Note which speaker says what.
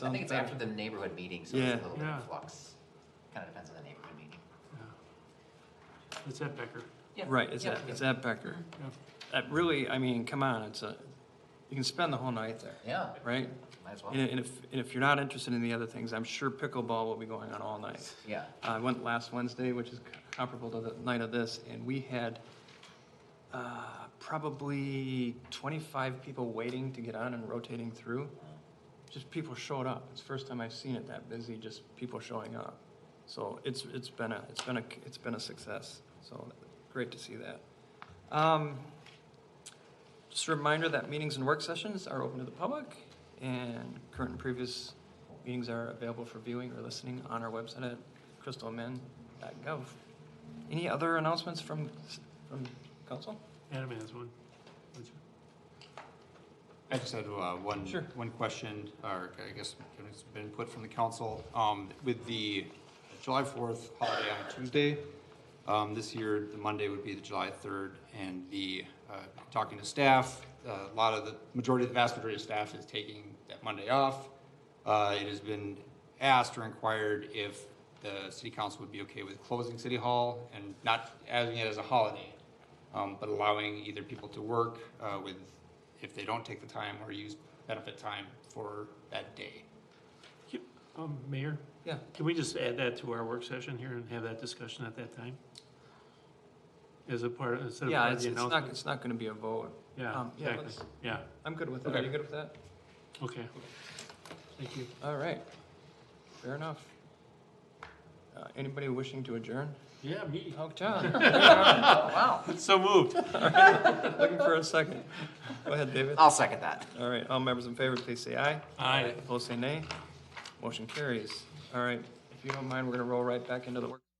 Speaker 1: I think it's after the neighborhood meeting, so
Speaker 2: Yeah.
Speaker 1: it's a little bit
Speaker 3: Yeah.
Speaker 1: of flux. Kind of depends on the neighborhood meeting.
Speaker 3: It's at Becker.
Speaker 1: Yeah.
Speaker 2: Right, it's
Speaker 1: Yeah.
Speaker 2: at, it's at Becker.
Speaker 3: Yeah.
Speaker 2: That really, I mean, come on, it's a, you can spend the whole night there,
Speaker 1: Yeah,
Speaker 2: right?
Speaker 1: might as well.
Speaker 2: And and if, and if you're not interested in the other things, I'm sure pickleball will be going on all night. Uh,
Speaker 1: Yeah,
Speaker 2: I went last Wednesday, which is comparable to the night of this, and we had uh, probably 25 people waiting to get on and rotating through. Just people showed up. It's the first time I've seen it that busy, just people showing up. So it's, it's been a, it's been a, it's been a success. So great to see that. Um, Just a reminder that meetings and work sessions are open to the public and current and previous meetings are available for viewing or listening on our website at crystalmen.gov. Any other announcements from, from council?
Speaker 3: Adam has one. Would you-
Speaker 4: I just had uh, one,
Speaker 2: Sure.
Speaker 4: one question, or I guess, can it's been input from the council. Um, With the July 4th holiday on Tuesday, um, this year, the Monday would be the July 3rd, and the, uh, talking to staff, uh, a lot of the, majority, the vast majority of staff is taking that Monday off. Uh, It has been asked or inquired if the city council would be okay with closing City Hall and not adding it as a holiday, um, but allowing either people to work uh, with, if they don't take the time, or use benefit time for that day.
Speaker 3: Can- Um, Mayor,
Speaker 2: Yeah.
Speaker 3: can we just add that to our work session here and have that discussion at that time? As a part, instead of
Speaker 2: Yeah,
Speaker 3: part of
Speaker 2: it's,
Speaker 3: the
Speaker 2: it's not,
Speaker 3: announcement?
Speaker 2: it's not gonna be a vote.
Speaker 3: Yeah,
Speaker 2: um, yeah,
Speaker 3: exactly. Yeah,
Speaker 2: I'm good with that. Are
Speaker 4: Okay.
Speaker 2: you good with that?
Speaker 3: okay. Thank you.
Speaker 2: All right. Fair enough. Uh, Anybody wishing to adjourn?
Speaker 3: Yeah, me.
Speaker 2: Oh, John,
Speaker 3: So moved.
Speaker 2: looking for a second. Go ahead, David.
Speaker 1: I'll second that.
Speaker 2: All right, all members in favor, please say aye.
Speaker 3: Aye.
Speaker 2: Opposed, say nay. Motion carries. All right, if you don't mind, we're gonna roll right back into the work.